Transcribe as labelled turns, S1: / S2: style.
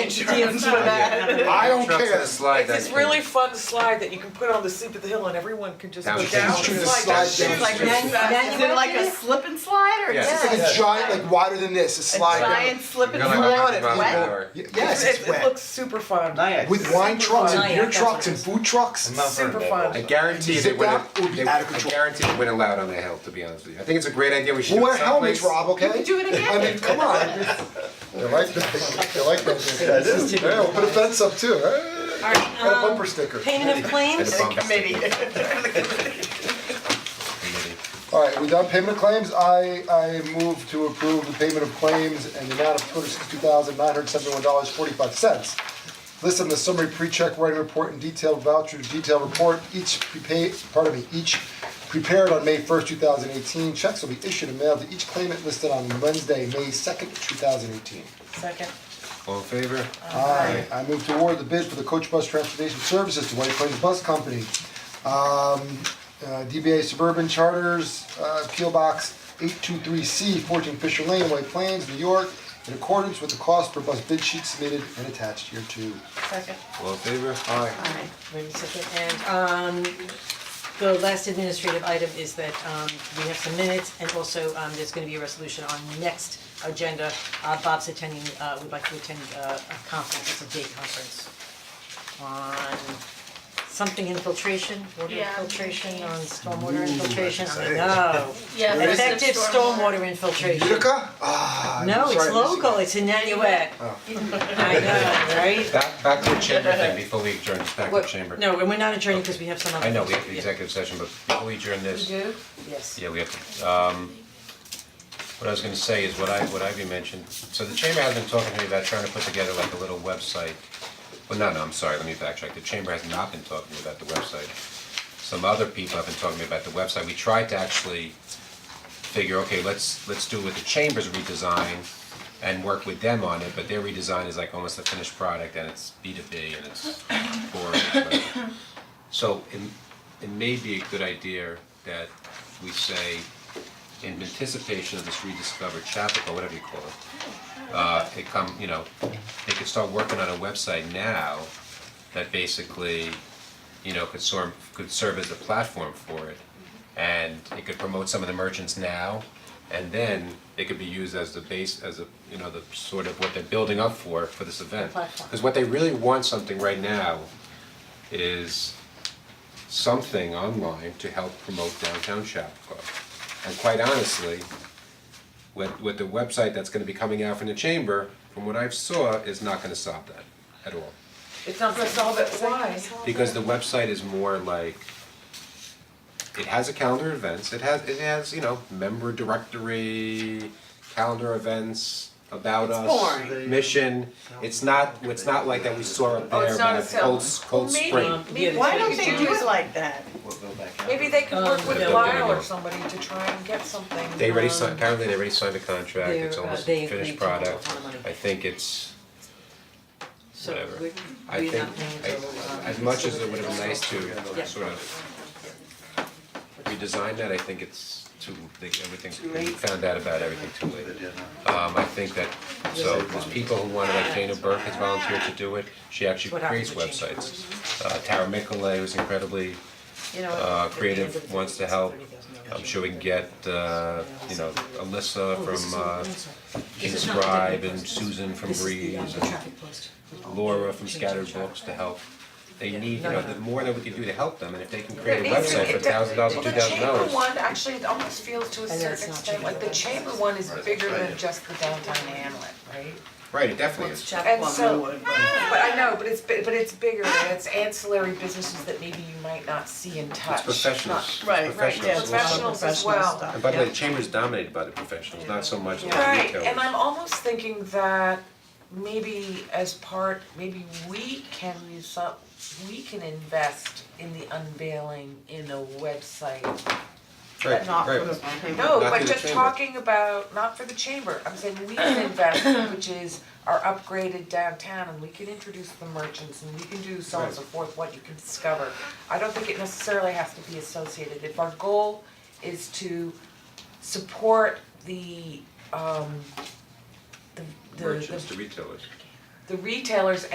S1: Insurance for
S2: Yeah.
S1: that.
S3: I don't
S2: Trucks
S3: care.
S2: and a slide
S1: It's this
S2: that-
S1: really fun slide that you can put on the sleep at the hill and everyone can just
S2: Down
S1: go
S2: the
S1: down.
S2: street.
S1: It's like-
S3: Slide
S1: shoot,
S3: down the
S1: like
S3: street.
S1: that's- that's-
S4: Is it like a slip and slide or
S2: Yes.
S4: just
S3: It's like a giant, like wider than this, a slide. down.
S4: giant slip
S2: You're
S4: and
S2: gonna
S3: You
S2: like
S3: want
S4: slide?
S3: it,
S2: rock
S3: people.
S2: and roll.
S3: Y- Yes,
S1: It,
S3: it's
S1: it
S3: wet.
S1: looks super fun.
S3: With wine trucks and
S1: Nyack,
S3: beer
S1: that's
S3: trucks
S1: what
S3: and
S1: it
S3: food trucks.
S1: Super fun.
S2: I guarantee they
S3: Zip
S2: wouldn't,
S3: up would be
S2: they,
S3: out of
S2: I
S3: control.
S2: guarantee they wouldn't allow it on the hill, to be honest with you. I think it's a great idea, we should do
S3: We'll wear
S2: it someplace.
S3: helmets, Rob, okay?
S4: You could do it again.
S3: I mean, come on. They like that, they like those. That is. Yeah, we'll put a fence up too, eh?
S1: Alright,
S3: And a bumper sticker.
S1: payment um, of claims?
S2: And a bump stick.
S3: Alright, we done payment of claims, I I move to approve the payment of claims and the amount of two hundred sixty-two thousand nine hundred seventy-one dollars forty-five cents. List on the summary pre-check writing report and detailed voucher detailed report, each prepaid, pardon me, each prepared on May first, two thousand eighteen. Checks will be issued and mailed to each claimant listed on Wednesday, May second, two thousand eighteen.
S1: Second.
S2: All in favor?
S3: Aye. I move to award the bid for the coach bus transportation services to White Plains Bus Company. Um, uh, DBA Suburban Charters, uh, P O Box eight two three C, fourteen Fisher Lane, White Plains, New York, in accordance with the cost per bus bid sheet submitted and attached here too.
S1: Second.
S2: All in favor?
S3: Aye.
S5: Alright, wait a second, and um the last administrative item is that um we have some minutes and also um there's gonna be a resolution on next agenda. Uh Bob's attending, uh would like to attend uh a conference, it's a day conference on something infiltration, water
S4: Yeah, I'm
S5: infiltration,
S4: thinking.
S5: on stormwater infiltration, I know.
S4: Yeah,
S5: Effective stormwater infiltration.
S3: Utica? Ah, I'm
S5: No, it's
S3: sorry to see-
S5: local, it's in Nanuet. I know, right?
S2: Back, back to the chamber thing before we adjourn, just back to the
S5: What-
S2: chamber.
S5: No, and we're not adjourning because we have some other.
S2: I know, we have the
S5: Yeah.
S2: executive session, but before we adjourn this,
S4: do?
S5: Yes.
S2: Yeah, we have, to, um, what I was gonna say is what I, what Ivy mentioned, so the chamber has been talking to me about trying to put together like a little website. Well, no, no, I'm sorry, let me backtrack, the chamber has not been talking to me about the website. Some other people have been talking to me about the website, we tried to actually figure, okay, let's, let's do what the chamber's redesign and work with them on it, but their redesign is like almost a finished product and it's B two B and it's boring, whatever. So it it may be a good idea that we say in anticipation of this rediscovered Chapel, whatever you call it. Uh it come, you know, they could start working on a website now that basically, you know, could sort could serve as a platform for it. And it could promote some of the merchants now and then it could be used as the base, as a, you know, the sort of what they're building up for for this event.
S5: Platform.
S2: Cause what they really want something right now is something online to help promote downtown Chapacua. And quite honestly, with with the website that's gonna be coming out from the chamber, from what I've saw, is not gonna solve that at all.
S1: It's not gonna solve it, why?
S2: Because the website is more like, it has a calendar of events, it has, it has, you know, member directory, calendar events, about us,
S5: boring.
S2: mission. It's not, it's not like that we saw up there
S1: it's not
S2: about
S1: a cell.
S2: Cold, Cold Spring.
S5: maybe- Um,
S4: Why don't they do it like that?
S1: Maybe they could work with
S2: Um, no,
S1: Lyle
S2: no.
S1: or somebody to try and get something.
S2: They already signed,
S5: Um,
S2: apparently they already signed a contract, it's
S5: they're, uh,
S2: almost
S5: they
S2: a finished
S5: agreed to a lot
S2: product.
S5: of money.
S2: I think it's,
S5: So
S2: whatever.
S5: we're,
S2: I
S5: we're
S2: think,
S5: not paying
S2: I-
S5: until, um,
S2: as much as
S5: so
S2: it would have been nice to
S5: Yeah.
S2: sort of redesign that, I think it's too, they- everything's, we found out about everything too late. Um, I think that, so there's people who wanna, like Dana Burke has volunteered to do it, she actually
S5: What happens
S2: creates
S5: when change
S2: websites. Uh, Tara Mickelay, who's incredibly
S5: You know,
S2: uh,
S5: at the end of
S2: creative
S5: the
S2: wants to
S5: day, it's
S2: help.
S5: $30,000
S2: I'm sure we can get, uh, you know, Alyssa
S5: Oh, this is
S2: from
S5: all-
S2: uh,
S5: I'm sorry. This is not the
S2: Inscribe
S5: deadline
S2: and
S5: post.
S2: Susan from
S5: This is the, um,
S2: Breeze
S5: the
S2: and
S5: traffic post.
S2: Laura from
S5: Change
S2: Scattered
S5: the traffic.
S2: Books to help. They
S5: Yeah.
S2: need, you
S5: No,
S2: know,
S5: no,
S2: the
S5: no.
S2: more that we can do to help them, and if they can
S1: There
S2: create a
S1: needs to be-
S2: website for
S1: it- that-
S2: thousand dollars,
S1: well,
S2: two thousand
S1: The
S2: dollars.
S1: chamber one actually it almost feels to a
S5: know
S1: certain
S5: it's not
S1: extent, like the chamber one is bigger than just the downtown hamlet, right?
S2: Right, it definitely is.
S1: And so, but I know, but it's, bi- but it's bigger, and it's ancillary businesses that maybe you might not see and touch.
S2: It's professionals, it's
S4: Right, right, yeah,
S2: professionals.
S4: it's a lot of
S1: Professionals as
S4: professional
S1: well.
S4: stuff,
S2: And by the way,
S4: yeah.
S2: the chamber's dominated by the professionals, not so much the
S1: Not- Right,
S2: retailers.
S1: and I'm almost thinking that maybe as part, maybe we can use some, we can invest in the unveiling in a website
S2: Right,
S4: Not for
S2: right.
S4: the people.
S1: No,
S2: Not
S1: but
S2: through the
S1: just
S2: chamber.
S1: talking about, not for the chamber, I'm saying we can invest, which is our upgraded downtown and we can introduce the merchants and we can do so on and so forth, what you can discover. I don't think it necessarily has to be associated, if our goal is to support the um the the
S2: Merchants
S1: the
S2: to retailers.
S1: the retailers